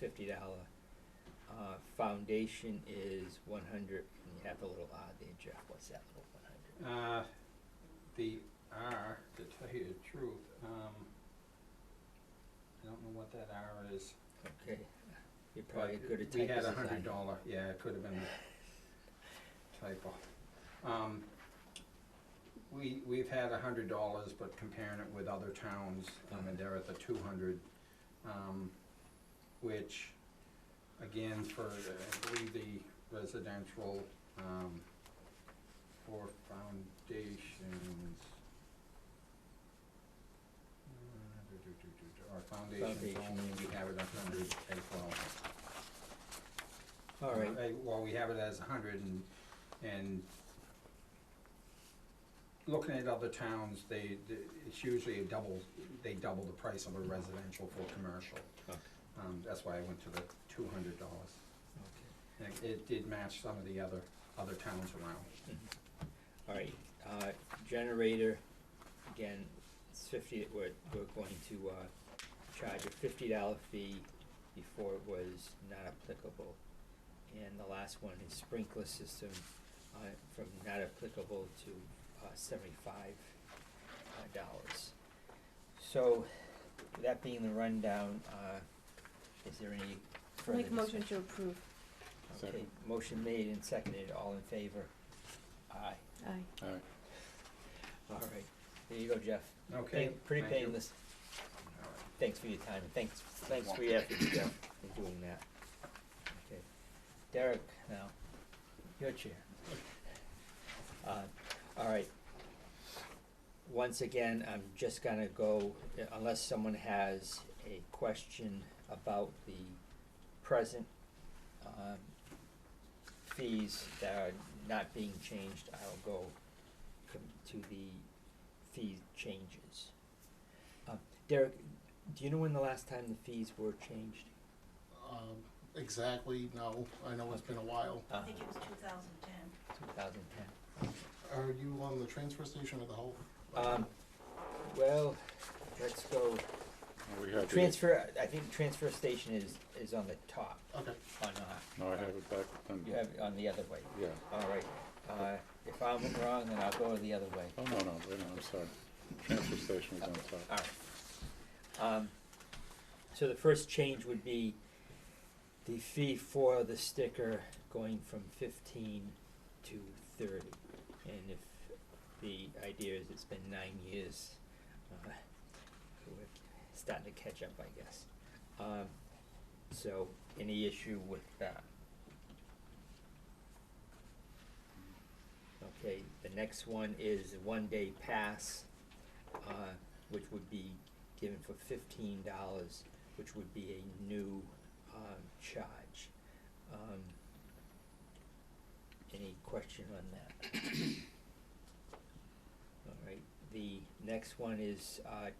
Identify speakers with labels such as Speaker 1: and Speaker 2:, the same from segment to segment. Speaker 1: fifty dollar. Uh, foundation is one hundred, and you have a little R there, Jeff, what's that little one hundred?
Speaker 2: Uh, the R, to tell you the truth, um, I don't know what that R is.
Speaker 1: Okay, you're probably
Speaker 2: but
Speaker 1: good at
Speaker 2: We
Speaker 1: typing
Speaker 2: had
Speaker 1: as I
Speaker 2: a
Speaker 1: am.
Speaker 2: hundred dollar, yeah, it could have been a typo. Um, we, we've had a hundred dollars, but comparing it with other towns, I mean, they're at the two hundred. Um, which, again, for, uh, I believe the residential, um, for foundations. Uh, do, do, do, do, do, Our foundations
Speaker 1: Foundation.
Speaker 2: only, we have it a hundred as well.
Speaker 1: All right,
Speaker 2: Uh, Well, we have it as a hundred and, and looking at other towns, they, they- it's usually a double, they double the price of a residential for commercial.
Speaker 1: Okay.
Speaker 2: Um, that's why I went to the two hundred dollars.
Speaker 1: okay.
Speaker 2: And it- it did match some of the other, other towns around.
Speaker 1: All right, uh, generator, again, it's fifty, we're, we're going to, uh, charge a fifty dollar fee before it was not applicable. And the last one is sprinkler system, uh, from not applicable to, uh, seventy-five uh, dollars. So, with that being the rundown, uh, is there any further
Speaker 3: Make a
Speaker 1: discussion?
Speaker 3: motion to approve.
Speaker 1: Okay, motion made and seconded, all in favor? Aye.
Speaker 3: Aye.
Speaker 4: Alright,
Speaker 1: All right, there you go, Jeff.
Speaker 2: Okay?
Speaker 1: Pain- Pretty
Speaker 2: thank you.
Speaker 1: painless.
Speaker 2: All right.
Speaker 1: Thanks for your time, and thanks, thanks for your effort, Jeff, in doing that. Okay, Derek, now, your chair. Uh, all right. Once again, I'm just gonna go, unless someone has a question about the present, um, fees that are not being changed, I'll go com- to the fee changes. Uh, Derek, do you know when the last time the fees were changed?
Speaker 5: Um, exactly, no, I know it's been a while.
Speaker 1: Uh,
Speaker 6: I think it was two thousand ten.
Speaker 1: two thousand ten.
Speaker 5: Are you on the transfer station or the whole?
Speaker 1: Um, well, let's go,
Speaker 4: Well, Oh, we had the,
Speaker 1: transfer, I think transfer station is, is on the top,
Speaker 5: Okay,
Speaker 1: or not,
Speaker 4: no, I have it back then.
Speaker 1: Oh, you have it on the other way,
Speaker 4: Yeah,
Speaker 1: all right. Uh, if I'm wrong, then I'll go the other way,
Speaker 4: oh, no, no, wait, no, I'm sorry, transfer station was on
Speaker 1: all
Speaker 4: top.
Speaker 1: right. Um, so the first change would be the fee for the sticker going from fifteen to thirty. And if the idea is it's been nine years, uh, we're starting to catch up, I guess. Um, so, any issue with that? Okay, the next one is one-day pass, uh, which would be given for fifteen dollars, which would be a new, um, charge. Um, any question on that? All right, the next one is, uh,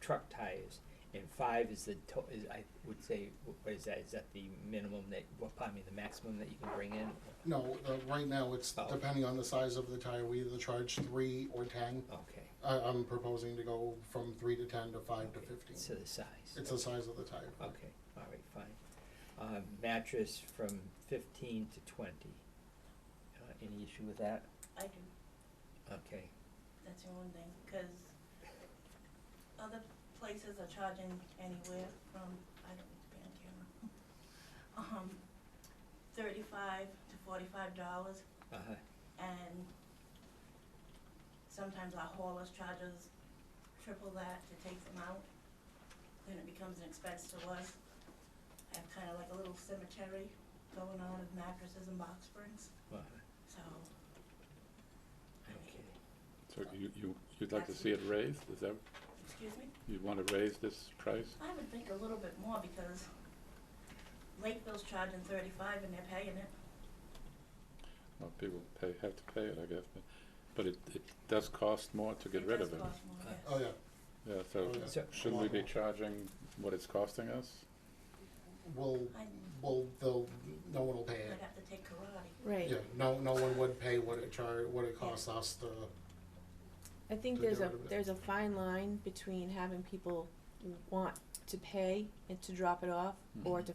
Speaker 1: truck tires, and five is the to- is, I would say, wh- what is that, is that the minimum that, well, pardon me, the maximum that you can bring in?
Speaker 5: no, uh, right now it's
Speaker 1: Oh.
Speaker 5: depending on the size of the tire, we either charge three or ten.
Speaker 1: Okay,
Speaker 5: I, I'm proposing to go from three to ten to five to
Speaker 1: Okay,
Speaker 5: fifteen.
Speaker 1: so the size.
Speaker 5: It's the size of the tire.
Speaker 1: Okay, all right, fine. Uh, mattress from fifteen to twenty. Uh, any issue with that?
Speaker 6: I do,
Speaker 1: Okay,
Speaker 6: that's the only thing, because other places are charging anywhere from, I don't need to be on camera. Um, thirty-five to forty-five dollars,
Speaker 1: uh-huh,
Speaker 6: and sometimes our haulers charge us triple that to take them out. Then it becomes an expense to us. I have kind of like a little cemetery going on with mattresses and box springs,
Speaker 1: uh-huh,
Speaker 6: so, I mean,
Speaker 1: okay.
Speaker 4: So you, you, you'd like to see it raised, is that,
Speaker 6: excuse me?
Speaker 4: you wanna raise this price?
Speaker 6: I would think a little bit more because Lakeville's charging thirty-five and they're paying it.
Speaker 4: Well, people pay, have to pay it, I guess, but, but it, it does cost more to get rid of it.
Speaker 6: does cost more,
Speaker 1: Uh,
Speaker 6: yes.
Speaker 5: Oh, yeah,
Speaker 4: Yeah, so
Speaker 5: Oh, yeah.
Speaker 1: So-
Speaker 4: shouldn't we be charging what it's costing us?
Speaker 5: we'll,
Speaker 6: I-
Speaker 5: we'll, they'll, no one will pay
Speaker 6: I'd
Speaker 5: it.
Speaker 6: have to take karate.
Speaker 3: Right.
Speaker 5: Yeah, no, no one would pay what it char, what it costs us to,
Speaker 3: I think
Speaker 5: To get
Speaker 3: there's a
Speaker 5: rid of it.
Speaker 3: there's a fine line between having people want to pay and to drop it off, or
Speaker 1: Mm-hmm.
Speaker 4: Mhm.
Speaker 3: to